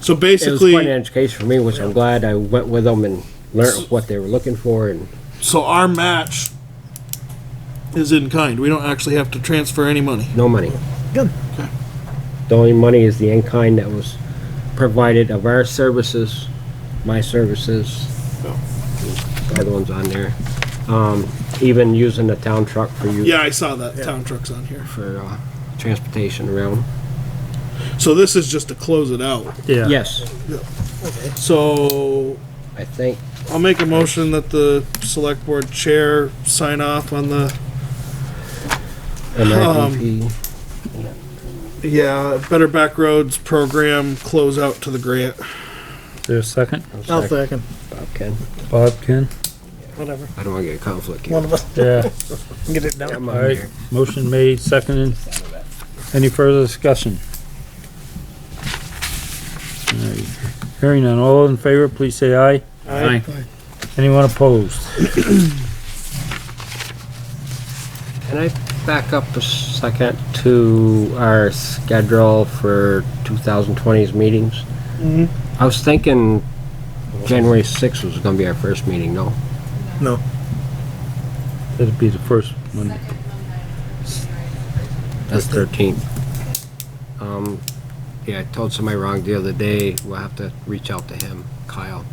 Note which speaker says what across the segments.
Speaker 1: So
Speaker 2: It was
Speaker 1: basically.
Speaker 2: quite an education for me, which I'm glad I went with them and learned what they were looking for and
Speaker 1: So our match is in kind. We don't actually have to transfer any money.
Speaker 2: no money.
Speaker 3: Good.
Speaker 2: The only money is the in-kind that was provided of our services, my services, the other ones on there. Um, even using the town truck for you,
Speaker 1: Yeah, I saw that town trucks on here.
Speaker 2: for, uh, transportation around.
Speaker 1: So this is just to close it out.
Speaker 3: Yeah.
Speaker 2: Yes,
Speaker 1: So
Speaker 2: I think,
Speaker 1: I'll make a motion that the select board chair sign off on the
Speaker 2: MIDP,
Speaker 1: yeah uh, Better Back Roads program close out to the grant.
Speaker 3: There's a second?
Speaker 4: I'll second.
Speaker 2: Ken,
Speaker 3: Bob, Ken?
Speaker 4: Whatever.
Speaker 2: I don't wanna get a conflict
Speaker 4: One
Speaker 2: here.
Speaker 4: of us
Speaker 3: Yeah.
Speaker 4: can get it down.
Speaker 2: I'm on
Speaker 3: Alright,
Speaker 2: here.
Speaker 3: motion made, seconded. Any further discussion? Alright, Hearing none, all in favor, please say aye.
Speaker 4: Aye.
Speaker 3: Anyone opposed?
Speaker 2: Can I back up a second to our schedule for 2020's meetings? I was thinking January 6th was gonna be our first meeting, no?
Speaker 4: No.
Speaker 3: That'd be the first one.
Speaker 2: That's 13th. Um, yeah, I told somebody wrong the other day, we'll have to reach out to him, Kyle.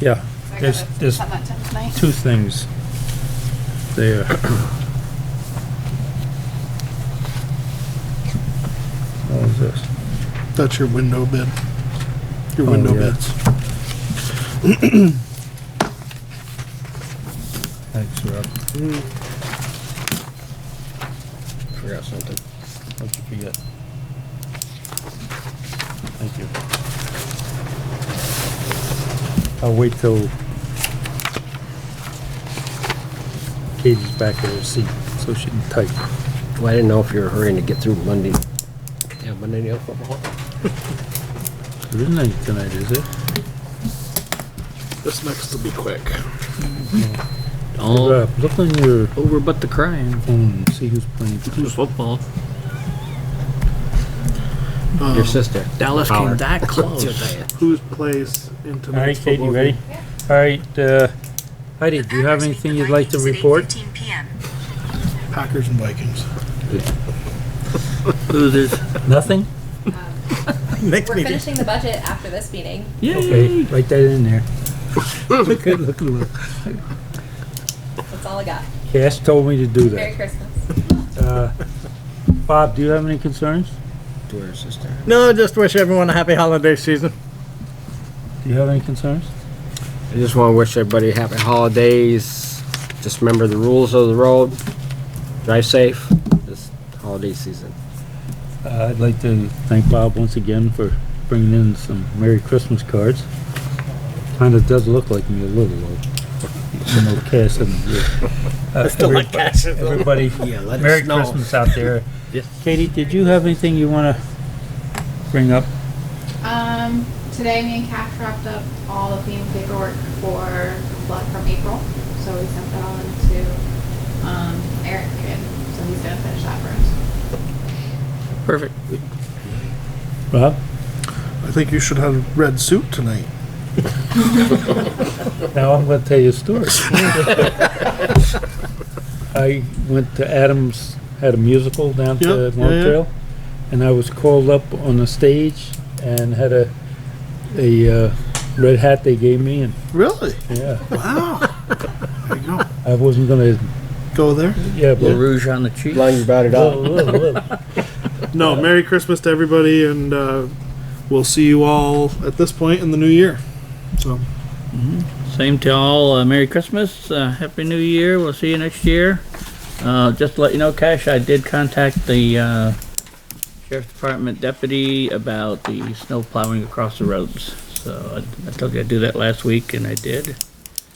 Speaker 3: Yeah, there's, there's
Speaker 5: Come on, tonight.
Speaker 3: two things there. What is this?
Speaker 1: That's your window bid. Your
Speaker 3: Oh,
Speaker 1: window
Speaker 3: yeah.
Speaker 1: bids.
Speaker 3: Thanks, Rob.
Speaker 2: Forgot something.
Speaker 3: What'd you forget? Thank you. I'll wait till Katie's back at her seat, so she can type.
Speaker 2: Well, I didn't know if you were hurrying to get through Monday. Yeah, Monday, night football.
Speaker 3: There isn't any tonight, is it?
Speaker 1: This next will be quick.
Speaker 6: All
Speaker 3: Rob, Look on your
Speaker 6: over but Oh. the crying.
Speaker 3: phone, and see who's playing.
Speaker 6: Who's football?
Speaker 2: Your sister.
Speaker 6: Dallas
Speaker 2: Howard.
Speaker 6: came that close.
Speaker 1: Who plays in
Speaker 3: All right,
Speaker 1: tonight's
Speaker 3: Katie,
Speaker 1: football
Speaker 3: ready?
Speaker 1: game?
Speaker 3: All right, uh, Heidi, do you have anything you'd like to report?
Speaker 1: Packers and Vikings.
Speaker 6: Losers.
Speaker 3: Nothing?
Speaker 4: Next
Speaker 5: We're
Speaker 4: meeting.
Speaker 5: finishing the budget after this meeting.
Speaker 3: Okay,
Speaker 6: Yay.
Speaker 3: write that in there. Look at, look at, look.
Speaker 5: That's all I got.
Speaker 3: Cass told me to do that.
Speaker 5: Merry Christmas.
Speaker 3: Uh, Bob, do you have any concerns?
Speaker 2: To her sister.
Speaker 4: No, just wish everyone a happy holiday season.
Speaker 3: Do you have any concerns?
Speaker 2: I just want to wish everybody happy holidays. Just remember the rules of the road. Drive safe this holiday season.
Speaker 3: Uh, I'd like to thank Bob once again for bringing in some Merry Christmas cards. Kinda does look like me a little, though. Even though Cass isn't here. Uh,
Speaker 4: Still like
Speaker 3: everybody-
Speaker 4: cash.
Speaker 3: Everybody,
Speaker 2: Yeah, let
Speaker 3: Merry Christmas out there.
Speaker 2: Yes.
Speaker 3: Katie, did you have anything you wanna bring up?
Speaker 7: Um, today me and Cash wrapped up all of the paperwork for blood from April, so we sent that all into, um, Eric, and so he's gonna finish that for us.
Speaker 6: Perfect.
Speaker 3: Bob,
Speaker 1: I think you should have a red suit tonight.
Speaker 3: now I'm gonna tell you a story. I went to Adams, had a musical down
Speaker 1: Yeah,
Speaker 3: to
Speaker 1: yeah,
Speaker 3: Long
Speaker 1: yeah.
Speaker 3: Trail, and I was called up on the stage and had a, a, uh, red hat they gave me and,
Speaker 1: Really?
Speaker 3: yeah,
Speaker 1: Wow. there you go.
Speaker 3: I wasn't gonna,
Speaker 1: Go there.
Speaker 3: yeah,
Speaker 6: Little
Speaker 3: but.
Speaker 6: rouge on the cheek.
Speaker 2: Long you brought it
Speaker 3: Whoa,
Speaker 2: up.
Speaker 3: whoa, whoa.
Speaker 1: No, Merry Christmas to everybody, and uh, we'll see you all at this point in the new year. So,
Speaker 6: Same to all. Uh, Merry Christmas. Uh, Happy New Year. We'll see you next year. Uh, just to let you know, Cash, I did contact the uh, Sheriff's Department deputy about the snow plowing across the roads. So I, I told you I'd do that last week, and I did.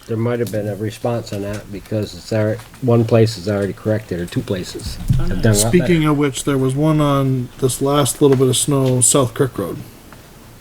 Speaker 2: There might have been a response on that because it's already, one place is already corrected or two places. have done a lot better.
Speaker 1: speaking of which, there was one on this last little bit of snow, South Kirk Road.